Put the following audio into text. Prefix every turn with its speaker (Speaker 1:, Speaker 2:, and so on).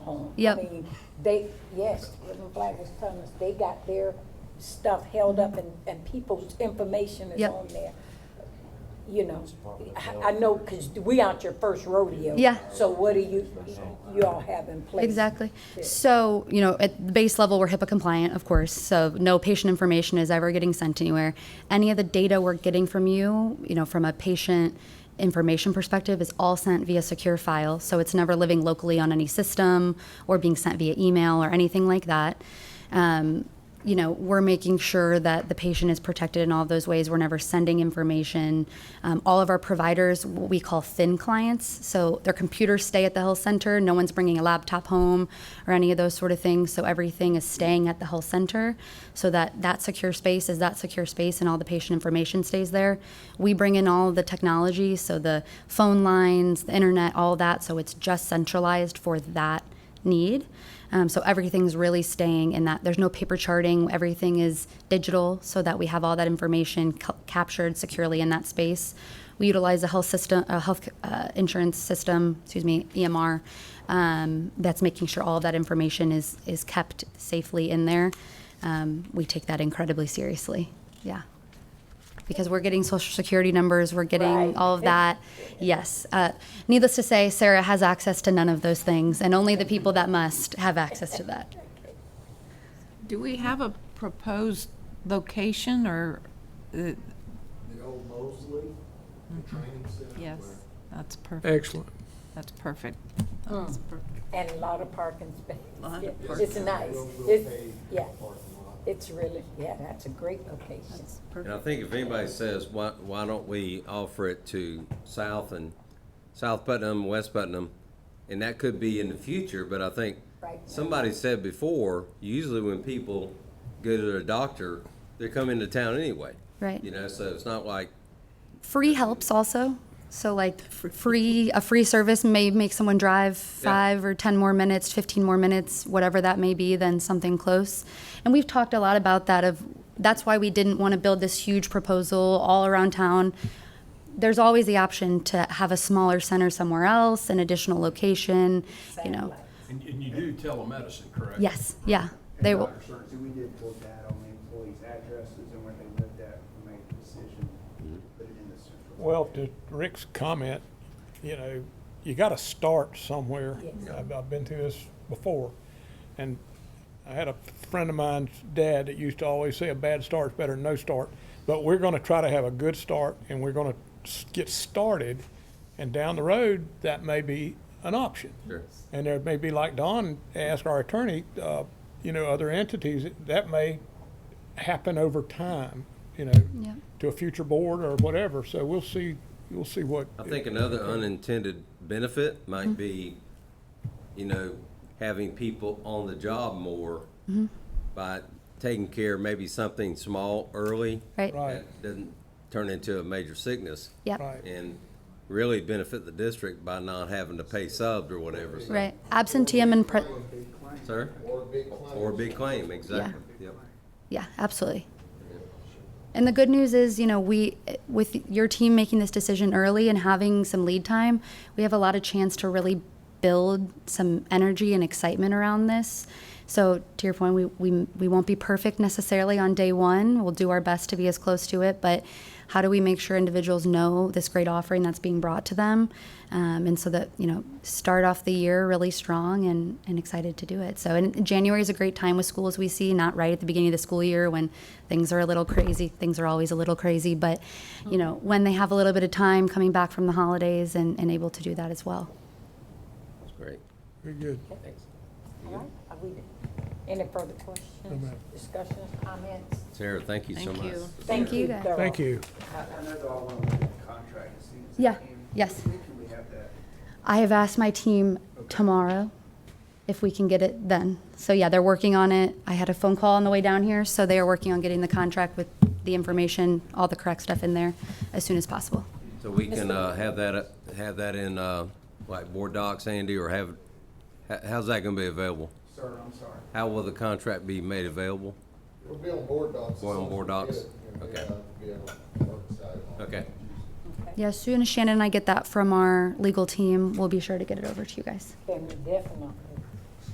Speaker 1: home.
Speaker 2: Yep.
Speaker 1: I mean, They, yes, Living Flag was telling us, they got their stuff held up and, and people's information is
Speaker 2: Yep.
Speaker 1: on there. You know, I- I know, because we aren't your first rodeo.
Speaker 2: Yeah.
Speaker 1: So what do you, you all have in place?
Speaker 2: Exactly.
Speaker 1: Yeah.
Speaker 2: So, you know, at the base level, we're HIPAA compliant, of course, so no patient information is ever getting sent anywhere. Any of the data we're getting from you, you know, from a patient information perspective, is all sent via secure file, so it's never living locally on any system or being sent via email or anything like that. Um, you know, we're making sure that the patient is protected in all of those ways. We're never sending information. Um, all of our providers, what we call thin clients, so their computers stay at the health center. No one's bringing a laptop home or any of those sort of things. So everything is staying at the health center, so that that secure space is that secure space, and all the patient information stays there. We bring in all of the technology, so the phone lines, the internet, all that. So it's just centralized for that need. Um, so everything's really staying in that. There's no paper charting. Everything is digital, so that we have all that information ca- captured securely in that space. We utilize a health system, a health uh, insurance system, excuse me, EMR, um, that's making sure all of that information is is kept safely in there. Um, we take that incredibly seriously. Yeah. Because we're getting social security numbers, we're getting
Speaker 1: Right.
Speaker 2: all of that. Yes. Uh, needless to say, Sarah has access to none of those things, and only the people that must have access to that.
Speaker 3: Do we have a proposed location or, uh,
Speaker 4: The old Mosley, the training center.
Speaker 3: yes, that's perfect,
Speaker 5: Excellent.
Speaker 3: that's perfect. That's
Speaker 1: Mm.
Speaker 3: per-
Speaker 1: And a lot of parking spaces.
Speaker 3: Lot of
Speaker 1: Yeah,
Speaker 3: parking.
Speaker 1: It's nice.
Speaker 4: We'll, we'll
Speaker 1: It's-
Speaker 4: pay
Speaker 1: yeah.
Speaker 4: parking lot.
Speaker 1: It's really, yeah, that's a great location.
Speaker 3: that's
Speaker 6: And I
Speaker 3: perfect.
Speaker 6: think if anybody says, why, why don't we offer it to South and, South Putnam, West Putnam? And that could be in the future, but I think
Speaker 1: Right now.
Speaker 6: somebody said before, usually when people go to their doctor, they're coming to town anyway.
Speaker 2: Right.
Speaker 6: You know, so it's not like,
Speaker 2: Free helps also. So like free a free service may make someone drive five or ten more minutes, fifteen more minutes, whatever that may be, than something close. And we've talked a lot about that of that's why we didn't want to build this huge proposal all around town. There's always the option to have a smaller center somewhere else, an additional location, you know.
Speaker 1: Satellite.
Speaker 7: And, and you do telemedicine, correct?
Speaker 2: Yes, yeah. They will
Speaker 8: And doctor search, we did put that on the employees' addresses and where they lived at, we made the decision,
Speaker 2: Mm-hmm.
Speaker 8: to put it in the central.
Speaker 5: Well, to Rick's comment, you know, you gotta start somewhere.
Speaker 1: Yes.
Speaker 5: I've, I've been through this before. And I had a friend of mine's dad that used to always say a bad start's better than no start. But we're gonna try to have a good start and we're gonna s- get started. And down the road, that may be an option.
Speaker 6: Sure.
Speaker 5: And there may be, like Don asked our attorney, uh, you know, other entities, that may happen over time, you know,
Speaker 2: Yeah.
Speaker 5: to a future board or whatever. So we'll see, we'll see what.
Speaker 6: I think another unintended benefit might be, you know, having people on the job more by taking care of maybe something small early.
Speaker 2: right.
Speaker 5: Right,
Speaker 6: that doesn't turn into a major sickness
Speaker 2: Yep.
Speaker 5: right.
Speaker 6: and really benefit the district by not having to pay subbed or whatever. so-
Speaker 2: Right. Absenteeism and pre-
Speaker 6: Sir?
Speaker 4: Or a big client.
Speaker 6: Or a big claim, exactly. Yep.
Speaker 2: Yeah, absolutely. And the good news is, you know, we, with your team making this decision early and having some lead time, we have a lot of chance to really build some energy and excitement around this. So to your point, we, we, we won't be perfect necessarily on day one. We'll do our best to be as close to it, but how do we make sure individuals know this great offering that's being brought to them? Um, and so that, you know, start off the year really strong and, and excited to do it. So, and January is a great time with schools we see, not right at the beginning of the school year when things are a little crazy. Things are always a little crazy, but, you know, when they have a little bit of time coming back from the holidays and, and able to do that as well.
Speaker 6: That's great.
Speaker 5: Very good.
Speaker 6: Thanks.
Speaker 1: All right, are we, any further questions,
Speaker 5: ma'am.
Speaker 1: discussions, comments?
Speaker 6: Sarah, thank you so
Speaker 3: Thank
Speaker 6: much.
Speaker 3: you.
Speaker 1: Thank you.
Speaker 2: guys.
Speaker 1: Thorough.
Speaker 5: Thank you.
Speaker 8: I I know they all want to look at the contract as soon as they
Speaker 2: Yeah,
Speaker 8: can.
Speaker 2: yes.
Speaker 8: When can we have that?
Speaker 2: I have asked my team tomorrow if we can get it then. So yeah, they're working on it. I had a phone call on the way down here, so they are working on getting the contract with the information, all the correct stuff in there as soon as possible.
Speaker 6: So we can uh, have that, uh, have that in, uh, like, board docs, Andy, or have, h- how's that going to be available?
Speaker 8: Sir, I'm sorry.
Speaker 6: How will the contract be made available?
Speaker 4: We'll be on board docs. as
Speaker 6: We're on
Speaker 4: soon as we
Speaker 6: board
Speaker 4: get
Speaker 6: docs?
Speaker 4: it, and
Speaker 6: Okay.
Speaker 4: then, uh, Be able to work side on it.
Speaker 6: Okay.
Speaker 2: Yeah, as soon as Shannon and I get that from our legal team, we'll be sure to get it over to you guys.
Speaker 1: Then we definitely